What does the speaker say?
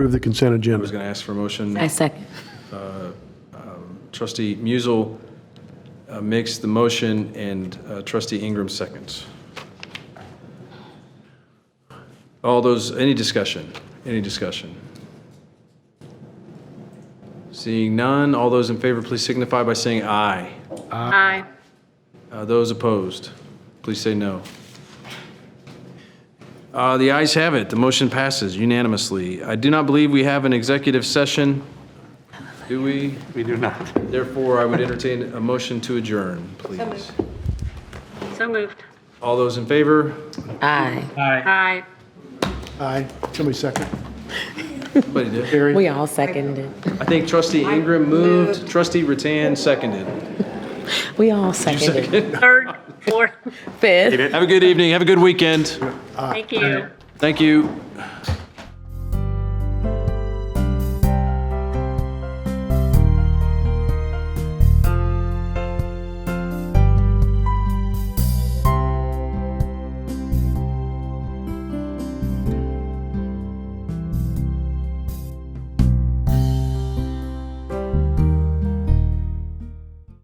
Approve the consent I was agenda. going to ask for a motion. I second. Trustee Musel uh, makes the motion, and uh, trustee Ingram seconds. All those, any discussion? Any discussion? Seeing none, all those in favor, please signify by saying aye. Aye. Uh, Those opposed, please say no. Uh, The ayes have it, the motion passes unanimously. I do not believe we have an executive session, do we? We do not. Therefore, I would entertain a motion to adjourn, please. So moved. All those in favor? Aye. Aye. Aye. Somebody second. Somebody did. Carrie? We all seconded. I think trustee Ingram moved, trustee Rattan seconded. We all seconded. third, fourth, Fifth. Have a good evening, have a good weekend. thank you. Thank you.